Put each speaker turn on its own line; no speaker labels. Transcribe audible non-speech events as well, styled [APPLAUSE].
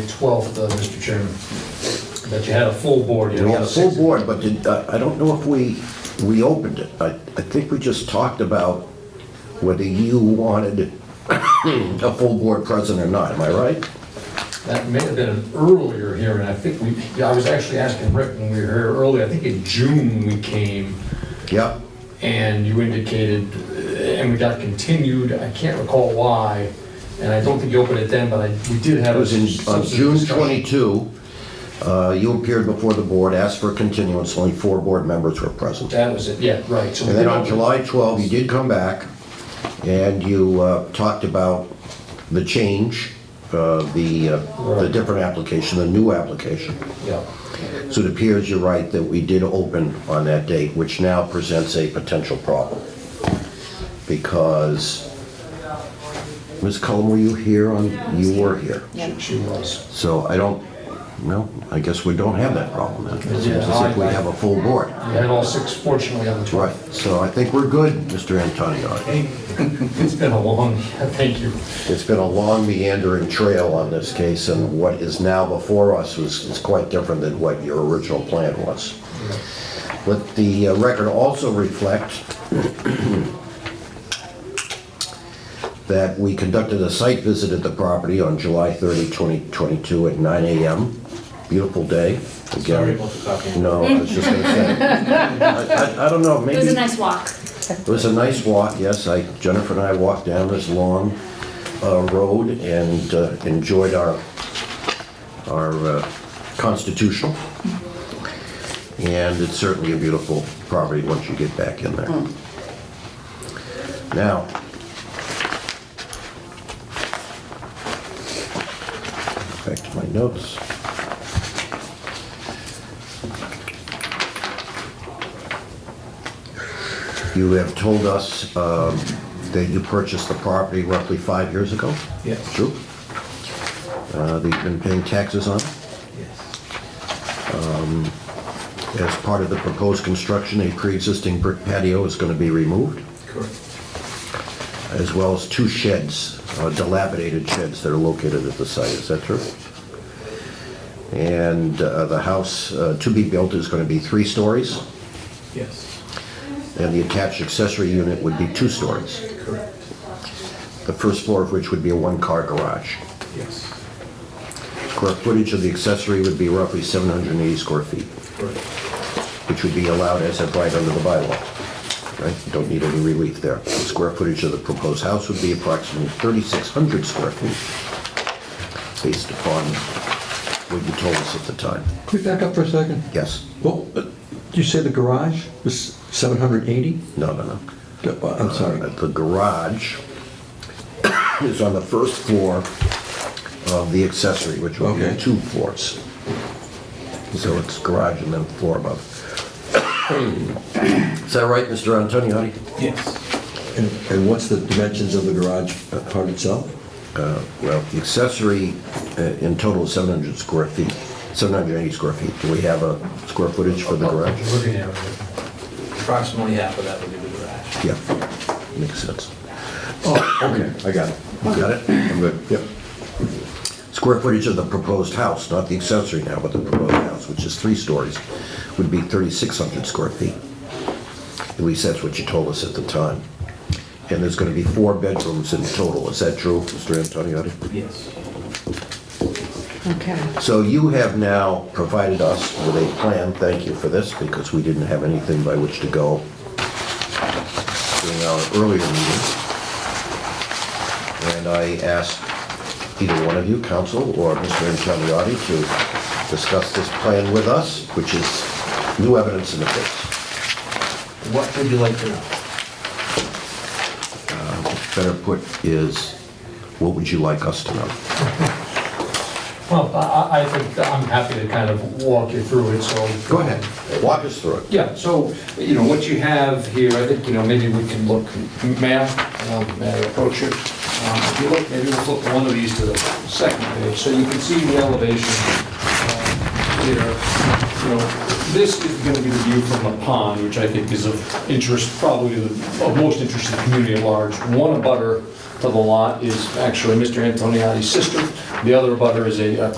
The 12th, uh, Mr. Chairman, that you had a full board. you
We had a
know,
full
six-
board, but did- uh, I I don't know if we reopened it. I, I think we just talked about whether you wanted a full board present or not, am I right?
That may have been an earlier hearing, I think we, yeah, I was actually asking Rick when we were here earlier, I think in June we came,
Yep.
and you indicated, uh, and we got continued, I can't recall why, and I don't think you opened it then, but I, we did have.
It
a
was in, on
substantive
June
discussion.
22, uh, you appeared before the board, asked for a continuance, only four board members were present.
That was it, yeah, right. So we
And
did
then on
open-
July 12, you did come back, and you uh, talked about the change, uh, the, uh, the
Right.
different application, the new application.
Yeah,
So it appears you're right that we did open on that date, which now presents a potential problem. Because, Ms. Cullen, were you here on, you were here?
she- she was.
So I don't, no, I guess we don't have that problem then. It seems as if we have a full board.
You had all six, fortunately, on the 12th.
Right, so I think we're good, Mr. Antonio.
It's been a long, [LAUGHS] thank you.
It's been a long meandering trail on this case, and what is now before us is, is quite different than what your original plan was. Let the uh, record also reflect [CLEARS THROAT] that we conducted a site visit at the property on July 30, 2022 at 9 AM. Beautiful day. Again-
Sorry about the talking.
No, I was just gonna say. I- I, I don't know, maybe.
It was a nice walk.
It was a nice walk, yes. I, Jennifer and I walked down this long uh, road and uh, enjoyed our, our uh, constitutional. And it's certainly a beautiful property once you get back in there. Now, back to my notes. You have told us um, that you purchased the property roughly five years ago?
Yes.
True? Uh, That you've been paying taxes on?
Yes.
As part of the proposed construction, a pre-existing brick patio is going to be removed,
Correct.
as well as two sheds, uh, dilapidated sheds that are located at the site. Is that true? And uh, the house uh, to be built is going to be three stories,
Yes.
and the attached accessory unit would be two stories,
Correct.
the first floor of which would be a one-car garage.
Yes.
Square footage of the accessory would be roughly 780 square feet,
Correct.
which would be allowed as of right under the bylaw. Right? You Don't need any relief there. The Square footage of the proposed house would be approximately 3,600 square feet, based upon what you told us at the time.
Could we back up for a second?
Yes?
Well, uh, you say the garage was 780?
No, no, no.
I'm
Uh,
sorry.
The garage is on the first floor of the accessory, which would be
Okay.
two floors. So it's garage and then floor above. Is that right, Mr. Antoniotti?
Yes.
And and what's the dimensions of the garage uh, part itself?
Uh, Well, the accessory uh, in total is 700 square feet, 780 square feet. Do we have a square footage for the garage?
Looking at it.
Approximately half of that would be the garage.
Yeah, makes sense. Oh, okay, I got it. You got it? I'm good. Yep. Square footage of the proposed house, not the accessory now, but the proposed house, which is three stories, would be 3,600 square feet. At least that's what you told us at the time. And there's going to be four bedrooms in total. Is that true, Mr. Antoniotti?
Yes.
Okay.
So you have now provided us with a plan, thank you for this, because we didn't have anything by which to go during our earlier meeting. And I asked either one of you, council or Mr. Ingeniotti, to discuss this plan with us, which is new evidence in the case.
What would you like to know?
Uh, Better put is, what would you like us to know?
Well, I, I- I think that I'm happy to kind of walk you through it, so.
Go ahead, walk us through it.
Yeah, so, you know, what you have here, I think, you know, maybe we can look, may I, Um, may I approach it? Um, If you look, maybe we'll flip one of these to the second page, so you can see the elevation um, here. You know, this is going to be the view from the pond, which I think is of interest, probably the- of most interest to the community at large. One abutter to the lot is actually Mr. Antoniotti's sister, the other abutter is a a